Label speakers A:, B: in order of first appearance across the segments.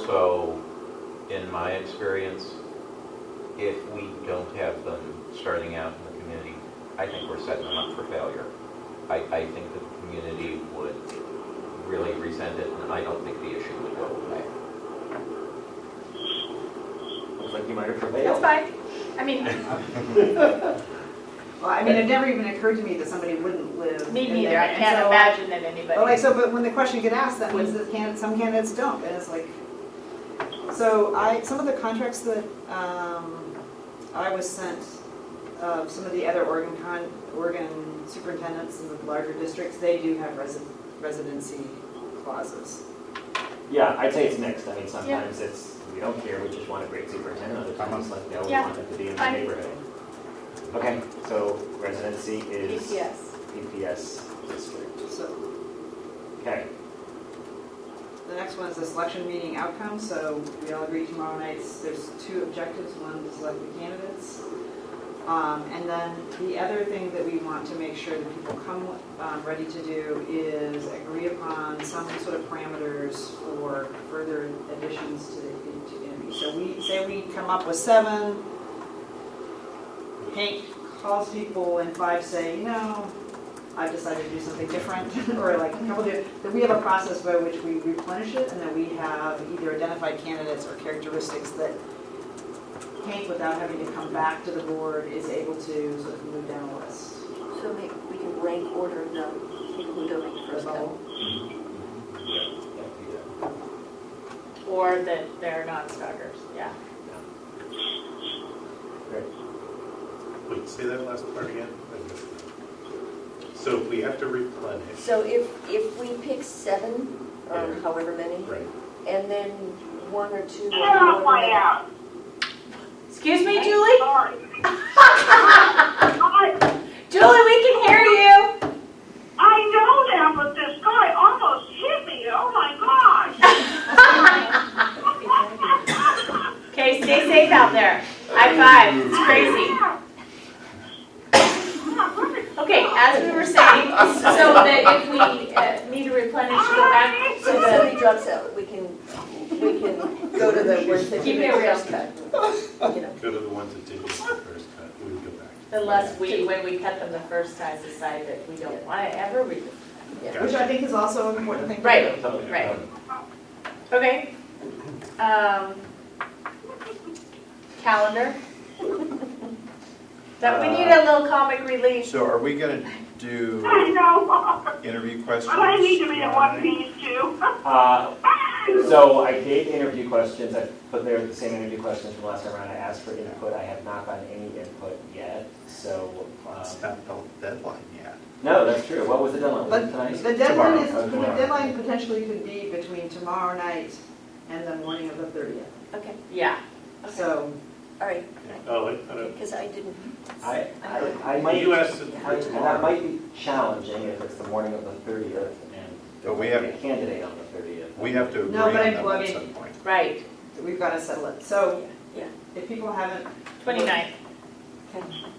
A: also, in my experience, if we don't have them starting out in the community, I think we're setting them up for failure. I, I think that the community would really resent it, and I don't think the issue would go away.
B: Looks like you might have
C: That's
B: prevailed.
C: fine. I mean,
D: Well, I mean, it never even occurred to me that somebody wouldn't live.
C: me
D: in
C: neither.
D: there. Oh,
C: I
D: And
C: can't
D: so-
C: imagine that
D: But like,
C: anybody.
D: so, but when the question get asked, that means that can, some candidates don't, and it's like, so I, some of the contracts that, um, I was sent, uh, some of the other Oregon con, Oregon superintendents in the larger districts, they do have resi- residency clauses.
B: Yeah, I'd say it's mixed. I mean, sometimes it's, we don't care, we just want a great superintendent. Other times it's like, no, we
C: Yeah.
B: want them to be in the
C: Fine.
B: neighborhood. Okay, so residency is
C: Yes.
B: PPS district.
D: So
B: Okay,
D: the next one is the selection meeting outcome, so we all agree tomorrow night, there's two objectives, one is select the candidates. Um, and then the other thing that we want to make sure that people come, um, ready to do is agree upon some sort of parameters for further additions to the, to the interview. So we, say we come up with seven, Hank calls people and five say, you know, I've decided to do something different, or like a couple different, that we have a process by which we replenish it, and that we have either identified candidates or characteristics that Hank, without having to come back to the board, is able to sort of move down a list.
E: So we, we can rank order the people who donate
D: First
E: first.
D: of all,
C: Or that they're non-starters, yeah.
F: Wait, say that last part again? I missed it. So if we have to replenish,
E: So if, if we pick seven, or
F: Yeah.
E: however many,
F: right,
E: and then one or two.
G: I don't
E: or
G: want
E: whatever-
G: out.
C: Excuse me, Julie?
G: Sorry. I,
C: Julie, we can hear you.
G: I know that, but this guy almost hit me. Oh my gosh.
C: Okay, stay safe out there. High five. It's crazy. Okay, as we were saying, so that if we uh, need to replenish, go back to
E: So if
C: the,
E: somebody drops out, we can, we can go to the ones that
C: Keep
E: did
C: it real.
E: first cut. You know,
F: go to the ones that did the first cut, we would go back.
C: unless we, when we cut them the first time, decide that we don't want to ever read them.
D: which I think is also an important thing. to
C: Right.
D: do.
B: totally.
C: Right. Okay. Um, calendar. That we need a little comic relief.
H: So are we gonna do
G: I know.
H: interview questions?
G: But I need to be in one piece too.
B: Uh, So I gave interview questions, I put there the same interview questions from last time around. I asked for input, I have not gotten any input yet, so.
F: Uh,
B: um,
H: It's not the deadline yet.
B: No, that's true. What was the deadline? Was it
D: But
B: tonight?
D: the deadline is,
B: Tomorrow.
D: the deadline potentially could be between tomorrow night and the morning of the thirtieth.
E: okay,
C: Yeah.
D: So,
E: all right,
F: Oh, I thought it-
E: because I didn't,
B: I, I, I might.
F: you asked it
B: I-
F: for
B: And that
F: tomorrow.
B: might be challenging if it's the morning of the thirtieth and there
H: But we
B: might be a
H: have-
B: candidate on the thirtieth.
H: We have to agree
D: No,
H: on
D: but I-
H: them
D: well, I
H: at
D: mean-
H: some point.
C: Right.
D: we've gotta settle it. So,
E: Yeah, yeah.
D: if people haven't.
C: 29th.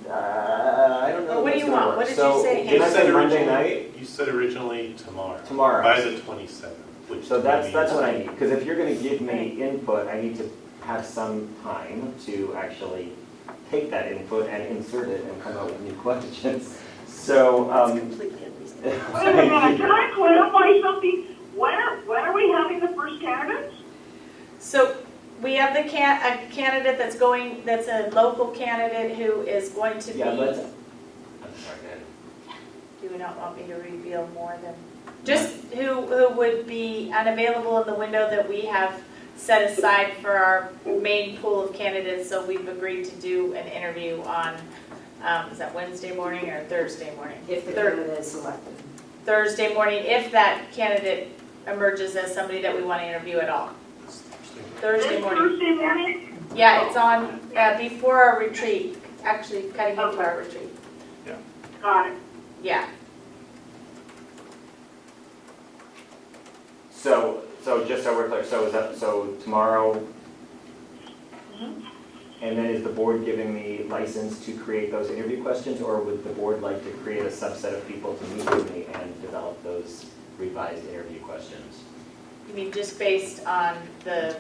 B: Uh, I don't know.
C: What do
B: if that's gonna
C: you want?
B: work.
C: What did you
B: So,
C: say?
B: Did I
F: You said
B: say Monday
F: originally-
B: night?
F: You said originally tomorrow.
B: Tomorrow.
F: By the twenty-seventh, which.
B: So that's,
F: means-
B: that's what I need, because if you're gonna give me input, I need to have some time to actually take that input and insert it and come up with new questions. So,
E: it's
B: um.
E: completely unreasonable.
G: Wait a minute. Can I clarify something? When are, when are we having the first candidates?
C: So we have the can, a candidate that's going, that's a local candidate who is going to be.
B: Yeah, let's, I'm sorry, man.
C: Do you not want me to reveal more than, just who, who would be unavailable in the window that we have set aside for our main pool of candidates, so we've agreed to do an interview on, um, is that Wednesday morning or Thursday morning?
D: If the
C: Thir-
D: candidate is selected.
C: Thursday morning, if that candidate emerges as somebody that we want to interview at all. Thursday
G: This
C: morning.
G: Thursday morning?
C: Yeah, it's on, uh, before our retreat, actually cutting into our retreat.
G: Got it.
C: Yeah,
B: So, so just so we're clear, so is that, so tomorrow?
C: Mhm.
B: And then is the board giving me license to create those interview questions, or would the board like to create a subset of people to meet with me and develop those revised interview questions?
C: you mean just based on the